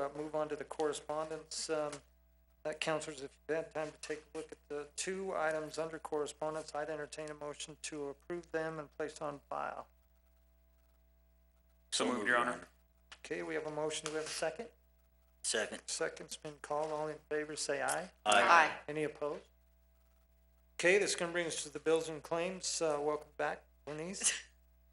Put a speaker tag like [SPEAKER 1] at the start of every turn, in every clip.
[SPEAKER 1] uh, move on to the correspondence. Um, uh, Counselors, if you've had time to take a look at the two items under correspondence, I'd entertain a motion to approve them and place on file.
[SPEAKER 2] So moved, Your Honor.
[SPEAKER 1] Okay, we have a motion. Do we have a second?
[SPEAKER 3] Second.
[SPEAKER 1] Second's been called. All in favor, say aye.
[SPEAKER 3] Aye.
[SPEAKER 1] Any opposed? Okay, this is gonna bring us to the bills and claims. Uh, welcome back, Bernice.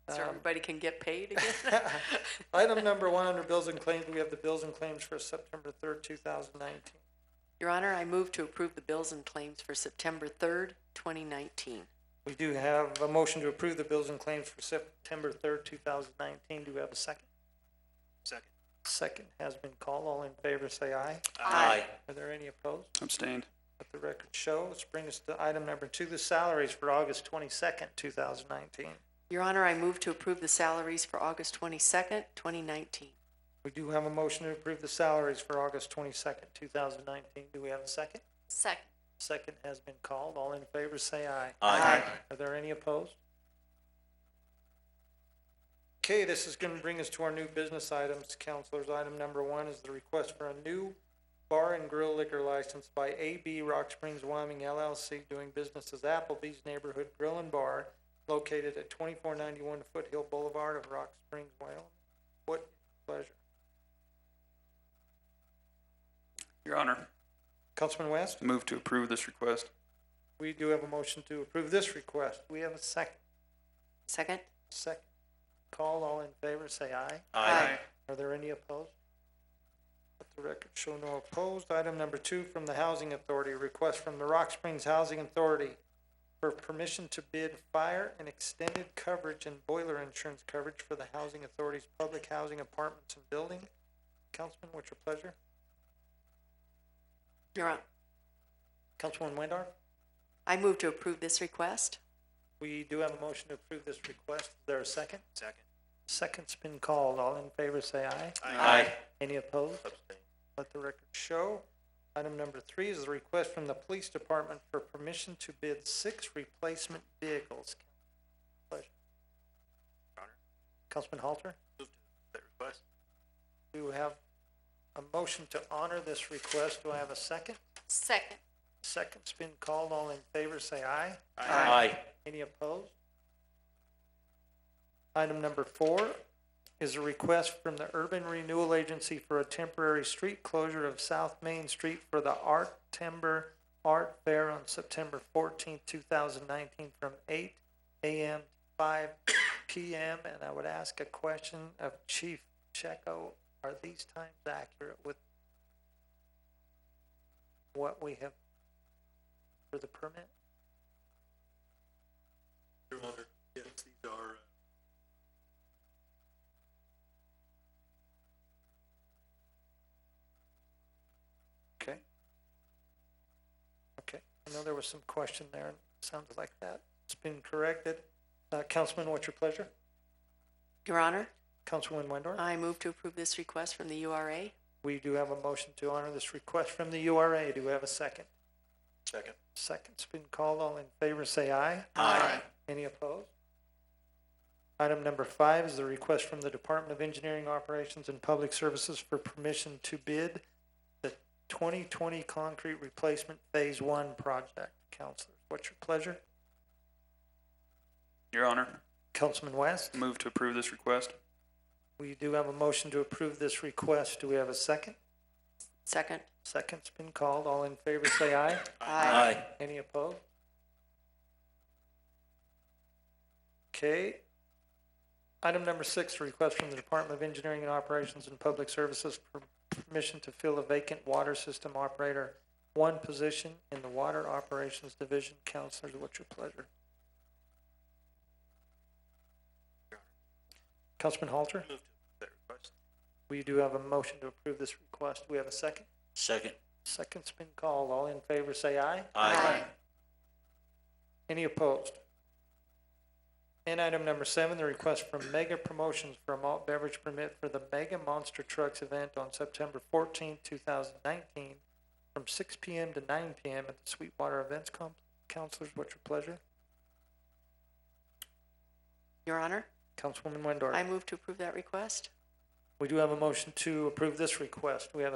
[SPEAKER 4] So
[SPEAKER 1] Um,
[SPEAKER 4] everybody can get paid again?
[SPEAKER 1] Item number one under bills and claims, we have the bills and claims for September third, two thousand nineteen.
[SPEAKER 4] Your Honor, I move to approve the bills and claims for September third, twenty nineteen.
[SPEAKER 1] We do have a motion to approve the bills and claims for September third, two thousand nineteen. Do we have a second?
[SPEAKER 3] Second.
[SPEAKER 1] Second has been called. All in favor, say aye.
[SPEAKER 3] Aye.
[SPEAKER 1] Are there any opposed?
[SPEAKER 2] Abstained.
[SPEAKER 1] Let the record show. Let's bring us to item number two, the salaries for August twenty-second, two thousand nineteen.
[SPEAKER 4] Your Honor, I move to approve the salaries for August twenty-second, twenty nineteen.
[SPEAKER 1] We do have a motion to approve the salaries for August twenty-second, two thousand nineteen. Do we have a second?
[SPEAKER 4] Second.
[SPEAKER 1] Second has been called. All in favor, say aye.
[SPEAKER 3] Aye.
[SPEAKER 1] Are there any opposed? Okay, this is gonna bring us to our new business items, counselors. Item number one is the request for a new bar and grill liquor license by AB Rock Springs Wyoming LLC doing business as Applebee's Neighborhood Grill and Bar located at twenty-four ninety-one Foothill Boulevard of Rock Springs, Wyoming. What pleasure.
[SPEAKER 2] Your Honor,
[SPEAKER 1] Councilman West,
[SPEAKER 2] move to approve this request.
[SPEAKER 1] we do have a motion to approve this request. We have a second.
[SPEAKER 4] Second?
[SPEAKER 1] Second. Call, all in favor, say aye.
[SPEAKER 4] Aye.
[SPEAKER 1] Are there any opposed? Let the record show no opposed. Item number two from the Housing Authority, request from the Rock Springs Housing Authority for permission to bid fire and extended coverage and boiler insurance coverage for the Housing Authority's public housing apartments and building. Councilman, what's your pleasure?
[SPEAKER 4] Your Honor,
[SPEAKER 1] Councilman Windor?
[SPEAKER 4] I move to approve this request.
[SPEAKER 1] We do have a motion to approve this request. Is there a second?
[SPEAKER 3] Second.
[SPEAKER 1] Second's been called. All in favor, say aye.
[SPEAKER 3] Aye.
[SPEAKER 1] Any opposed?
[SPEAKER 3] Abstain.
[SPEAKER 1] Let the record show. Item number three is the request from the police department for permission to bid six replacement vehicles. Pleasure.
[SPEAKER 3] Honor.
[SPEAKER 1] Councilman Halter,
[SPEAKER 3] Move to that request.
[SPEAKER 1] do you have a motion to honor this request? Do I have a second?
[SPEAKER 4] Second.
[SPEAKER 1] Second's been called. All in favor, say aye.
[SPEAKER 3] Aye.
[SPEAKER 1] Any opposed? Item number four is a request from the Urban Renewal Agency for a temporary street closure of South Main Street for the Art Timber Art Fair on September fourteenth, two thousand nineteen, from eight AM to five PM. And I would ask a question of Chief Checo, are these times accurate with what we have for the permit?
[SPEAKER 5] Your Honor, yes, these are, uh,
[SPEAKER 2] Okay.
[SPEAKER 1] Okay, I know there was some question there, and it sounds like that. It's been corrected. Uh, Councilman, what's your pleasure?
[SPEAKER 4] Your Honor,
[SPEAKER 1] Councilwoman Windor?
[SPEAKER 4] I move to approve this request from the URA.
[SPEAKER 1] We do have a motion to honor this request from the URA. Do we have a second?
[SPEAKER 3] Second.
[SPEAKER 1] Second's been called. All in favor, say aye.
[SPEAKER 3] Aye.
[SPEAKER 1] Any opposed? Item number five is the request from the Department of Engineering Operations and Public Services for permission to bid the twenty twenty concrete replacement phase one project. Counselors, what's your pleasure?
[SPEAKER 2] Your Honor,
[SPEAKER 1] Councilman West?
[SPEAKER 2] move to approve this request.
[SPEAKER 1] We do have a motion to approve this request. Do we have a second?
[SPEAKER 4] Second?
[SPEAKER 1] Second's been called. All in favor, say aye.
[SPEAKER 3] Aye.
[SPEAKER 1] Any opposed? Okay. Item number six, request from the Department of Engineering and Operations and Public Services for permission to fill a vacant water system operator, one position in the Water Operations Division. Counselors, what's your pleasure? Councilman Halter?
[SPEAKER 3] Move to that request.
[SPEAKER 1] We do have a motion to approve this request. Do we have a second?
[SPEAKER 3] Second.
[SPEAKER 1] Second's been called. All in favor, say aye.
[SPEAKER 3] Aye.
[SPEAKER 1] Any opposed? And item number seven, the request from Mega Promotions for a malt beverage permit for the Mega Monster Trucks event on September fourteenth, two thousand nineteen, from six P M. to nine P M. at the Sweetwater Events Com- Counselors, what's your pleasure?
[SPEAKER 4] Your Honor,
[SPEAKER 1] Councilwoman Windor?
[SPEAKER 4] I move to approve that request.
[SPEAKER 1] We do have a motion to approve this request. We have a